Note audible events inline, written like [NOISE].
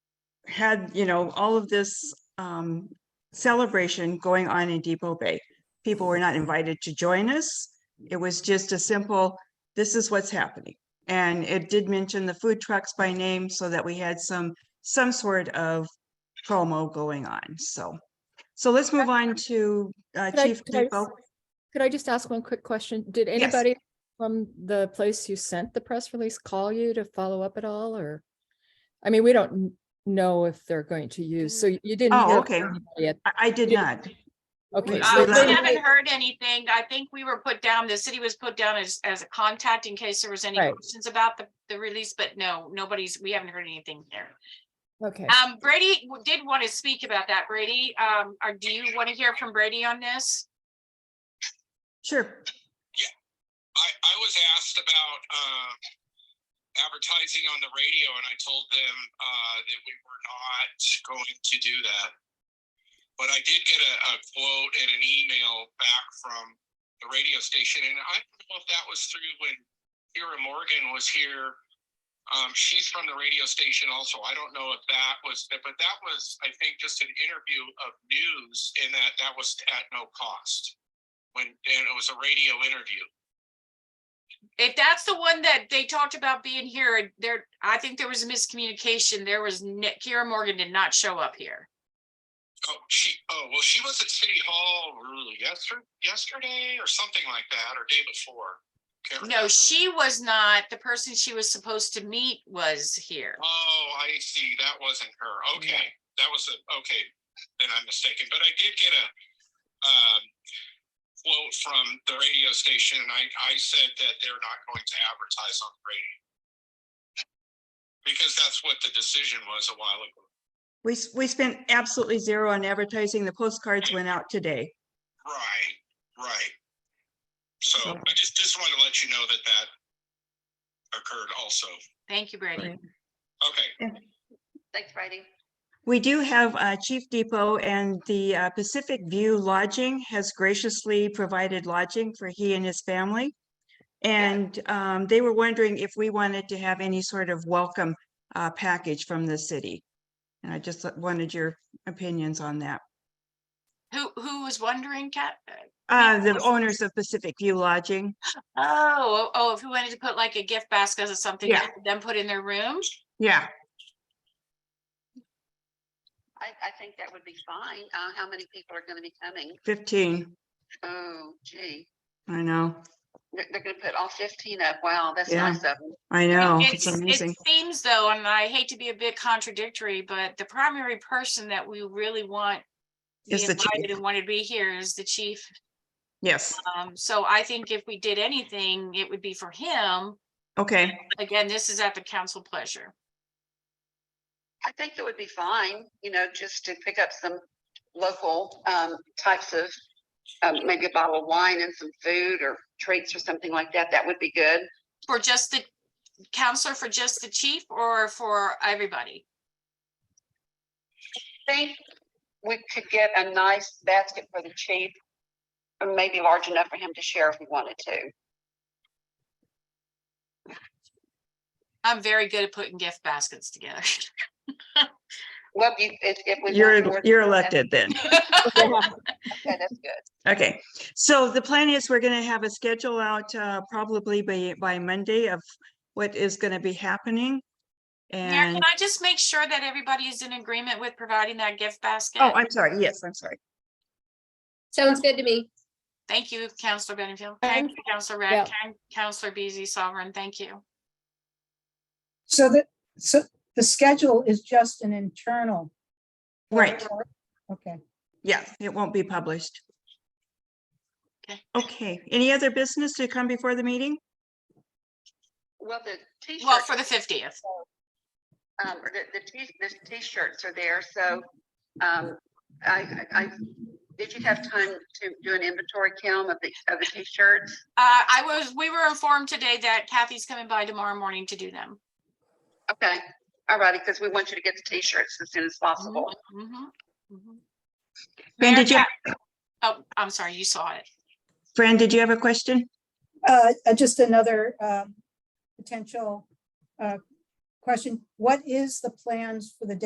had, you know, all of this um celebration going on in Depot Bay. People were not invited to join us. It was just a simple, this is what's happening. And it did mention the food trucks by name so that we had some, some sort of promo going on, so. So let's move on to uh Could I- Chief could I- Depot. Could I just ask one quick question? Did anybody from the place you sent the press release call you to follow up at all or? I mean, we don't n- know if they're going to use, so you didn't. Oh, hear okay. from anybody at- I, I did Yeah. not. Okay. we- so Uh, Good luck. we they- haven't heard anything. I think we were put down, the city was put down as, as a contact in case there was any Right. questions about the, the release, but no, nobody's, we haven't heard anything there. Okay, Um, Brady w- did want to speak about that, Brady. Um, or do you want to hear from Brady on this? Sure. I, I was asked about uh, advertising on the radio, and I told them uh, that we were not going to do that. But I did get a, a quote and an email back from the radio station, and I don't know if that was through when Kira Morgan was here. Um, she's from the radio station also. I don't know if that was, but that was, I think, just an interview of news, and that that was at no cost. When and it was a radio interview. If that's the one that they talked about being here, and there, I think there was miscommunication. There was, n- Kira Morgan did not show up here. Oh, she, oh, well, she was at City Hall yesterday, yesterday or something like that, or day before. Can't No, remember. she was not. The person she was supposed to meet was here. Oh, I see. That wasn't her. Okay, that was a, okay, then I'm mistaken, but I did get a, um, quote from the radio station and I, I said that they're not going to advertise on the radio. Because that's what the decision was a while ago. We, s- we spent absolutely zero on advertising. The postcards went out today. Right, right. So So- I just, just wanted to let you know that that occurred also. Thank you, Brady. Okay, Thanks, Brady. We do have uh, Chief Depot and the uh, Pacific View Lodging has graciously provided lodging for he and his family. And um, they were wondering if we wanted to have any sort of welcome uh, package from the city. And I just wanted your opinions on that. Who, who was wondering, Kat? Uh, The owners of Pacific View Lodging, Oh, oh, oh, if we wanted to put like a gift basket or something, Yeah. to then put in their room? yeah, I, I think that would be fine. Uh, how many people are gonna be coming? 15, Oh gee, I know, they're, they're gonna put all fifteen up. Wow, that's Yeah. nice of them. I know, it's It's- amazing. It seems though, and I hate to be a bit contradictory, but the primary person that we really want to be Is the chief. invited and want to be here is the chief. Yes, Um, so I think if we did anything, it would be for him. okay, Again, this is at the council pleasure. I think it would be fine, you know, just to pick up some local, um, types of, um, maybe a bottle of wine and some food or treats or something like that. That would be good. For just the counselor, for just the chief or for everybody? Think we could get a nice basket for the chief. Or maybe large enough for him to share if he wanted to. I'm very good at putting gift baskets together. [LAUGHS] Well, you, if, if we. want more you're, than you're that, elected then. Okay, that's good. Okay, so the plan is we're gonna have a schedule out uh probably by by Monday of what is gonna be happening. Mayor, And, can I just make sure that everybody is in agreement with providing that gift basket? oh, I'm sorry, yes, I'm sorry. Sounds good to me. Thank you, Counselor Benfield. Thank you, Counselor Yeah. Radkin, Counselor Beazley Sovereign. Thank you. So that, so the schedule is just an internal. Right, Okay. yeah, it won't be published. Okay. Okay, any other business to come before the meeting? Well, the t-shirts. Well, for the fiftieth. Um, the, the t, the t-shirts are there, so, um, I, I, I- did you have time to do an inventory count of the, of the t-shirts? Uh, I was, we were informed today that Kathy's coming by tomorrow morning to do them. Okay, all righty, because we want you to get the t-shirts as soon as possible. Mhm, mhm. Fran, Mayor did you, Ka- Oh, I'm sorry, you saw it. Fran, did you have a question? Uh, uh, just another, um, potential, uh, question. What is the plans for the